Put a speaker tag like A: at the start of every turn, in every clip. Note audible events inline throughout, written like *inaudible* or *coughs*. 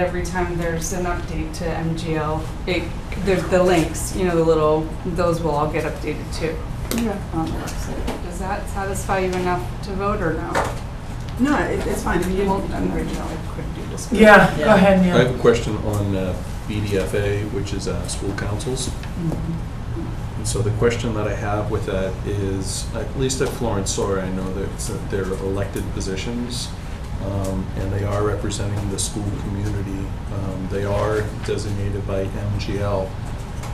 A: Every time there's an update to MGL, it, there's the links, you know, the little, those will all get updated too on the website. Does that satisfy you enough to vote or no?
B: No, it- it's fine. I mean, you
A: Well,
B: don't,
A: I'm originally could do this.
C: Yeah, go ahead,
D: I have
C: Neil.
D: a question on uh, BDFA, which is uh, school councils.
A: Mm-hmm.
D: And so the question that I have with that is, at least at Florence Sore, I know that it's- that they're elected positions, um, and they are representing the school community. Um, They are designated by MGL.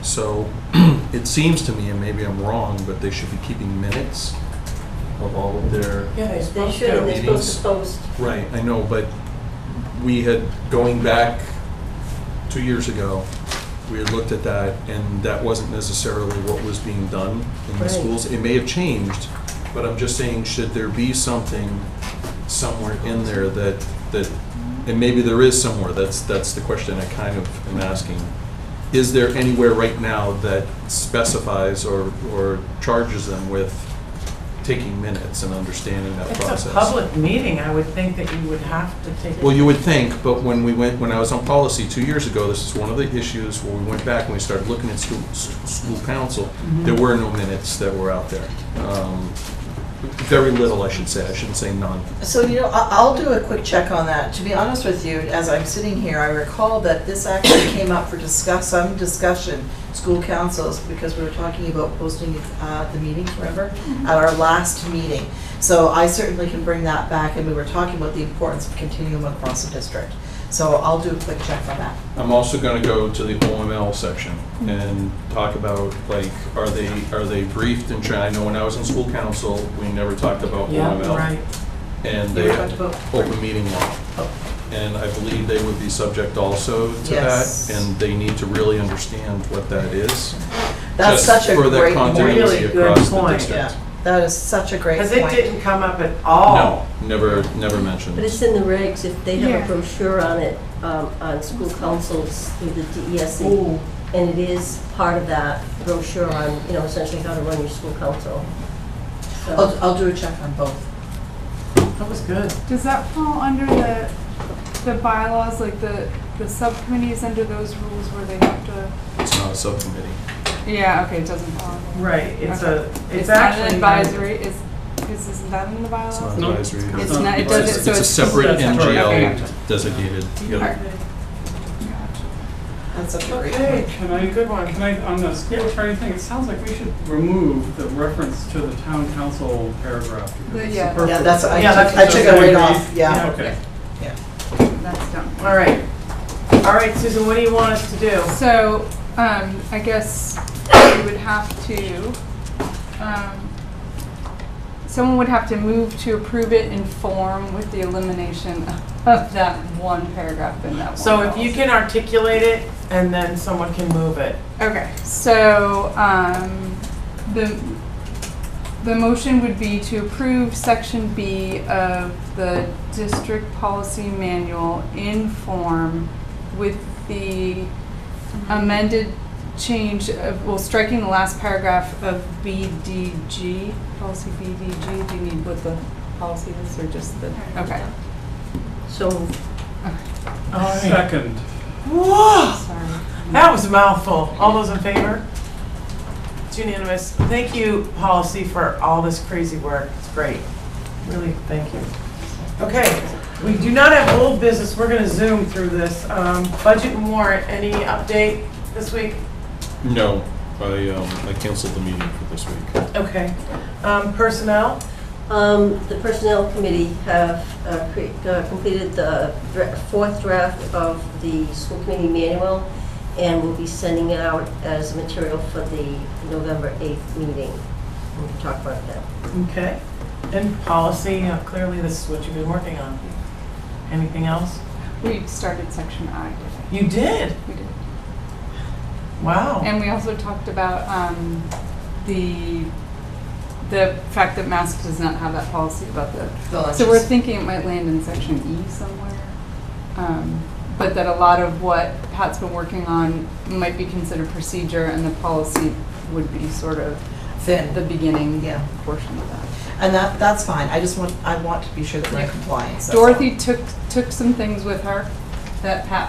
D: So *clears throat* it seems to me, and maybe I'm wrong, but they should be keeping minutes of all of their
C: Yeah, they're
E: They
C: supposed
E: should,
C: to.
E: and they're supposed to post.
D: Right, I know, but we had, going back two years ago, we had looked at that, and that wasn't necessarily what was being done in the
C: Right.
D: schools. It may have changed, but I'm just saying, should there be something somewhere in there that, that, and maybe there is somewhere, that's, that's the question I kind of am asking. Is there anywhere right now that specifies or, or charges them with taking minutes and understanding that process?
C: It's a public meeting, I would think that you would have to take.
D: Well, you would think, but when we went, when I was on policy two years ago, this is one of the issues where we went back and we started looking at school, s- school council,
C: Mm-hmm.
D: there were no minutes that were out there. Um, Very little, I should say, I shouldn't say none.
F: So, you know, I- I'll do a quick check on that. To be honest with you, as I'm sitting here, I recall that this actually *coughs* came up for discuss, some discussion, school councils, because we were talking about posting uh, the meetings, remember?
C: Mm-hmm.
F: At our last meeting. So I certainly can bring that back, and we were talking about the importance of continuum across the district. So I'll do a quick check on that.
D: I'm also gonna go to the OML section
C: Mm-hmm.
D: and talk about, like, are they, are they briefed in China? I know when I was in school council, we never talked about
C: Yeah,
D: OML.
C: right.
D: And
F: You
D: they
F: were
D: had
F: talking about-
D: open meeting law. And I believe they would be subject also to that,
F: Yes.
D: and they need to really understand what that is.
F: That's
D: Just
F: such a
D: for the
F: great
D: continuity
F: point.
C: Really good
D: across the
C: point,
D: district.
F: Yeah, that is such a great
C: Because
F: point.
C: it didn't come up at all.
D: No, never, never mentioned.
E: But it's in the regs, if they have
A: Yeah.
E: a brochure on it, um, on school councils through the DESE,
C: Ooh,
E: E. and it is part of that brochure on, you know, essentially how to run your school council. So-
F: I'll, I'll do a check on both.
C: that was good.
A: Does that fall under the, the bylaws, like the, the subcommittees under those rules where they have to?
D: It's not a subcommittee.
A: Yeah, okay, it doesn't fall. under-
C: Right, it's a, it's
A: not an
C: actually.
A: Advisory, is, is, isn't that in the
D: It's not
A: bylaws?
G: No,
D: advisory.
G: it's
A: It's not, it
G: It's a-
A: doesn't,
D: It's
A: so
D: a
A: it's.
D: separate
G: That's
A: correct.
D: NGL designated.
A: All right.
D: yeah.
F: That's such a great
G: Okay,
F: point.
G: can I, good one, can I, on the school attorney thing, it sounds like we should remove the reference to the town council paragraph.
A: The-
G: because it's
A: yeah.
G: superfluous.
F: Yeah, that's, I
C: Yeah,
F: took,
C: that's-
F: I took it right off,
C: Yeah.
F: yeah.
G: Okay.
A: That's done.
C: All right. All right, Susan, what do you want us to do?
A: So, um, I guess we would have to, um, someone would have to move to approve it in form with the elimination of that one paragraph in that one.
C: So if you
A: policy.
C: can articulate it, and then someone can move it.
A: Okay, so, um, the, the motion would be to approve section B of the district policy manual in form with the Mm-hmm. amended change of, well, striking the last paragraph of BDG, policy BDG, do you need what the policy is, or just the, okay,
E: So
G: Second,
C: Whoa,
A: sorry.
C: that was a mouthful. All those in favor? It's unanimous. Thank you, policy, for all this crazy work. It's great. Really, thank you. Okay, we do not have old business. We're gonna zoom through this. Um, budget and warrant, any update this week?
D: No, I, um, I canceled the meeting for this week.
C: Okay. Um, personnel?
E: Um, The Personnel Committee have uh, cre- uh, completed the dra- fourth draft of the school committee manual, and we will be sending it out as material for the November 8th meeting. We can talk about that.
C: Okay. And policy, uh, clearly this is what you've been working on. Anything else?
A: We started section I, didn't
C: You did?
A: we? We did.
C: Wow.
A: And we also talked about um, the, the fact that mask does not have that policy about the,
F: So that's
A: so we're
F: just-
A: thinking it might land in section E somewhere. Um, But that a lot of what Pat's been working on might be considered procedure and the policy would be sort of
F: Thin.
A: the beginning
F: Yeah.
A: portion of that.
F: And that, that's fine, I just want, I want to be sure that we're in compliance. that's all.
A: Dorothy took, took some things with her that Pat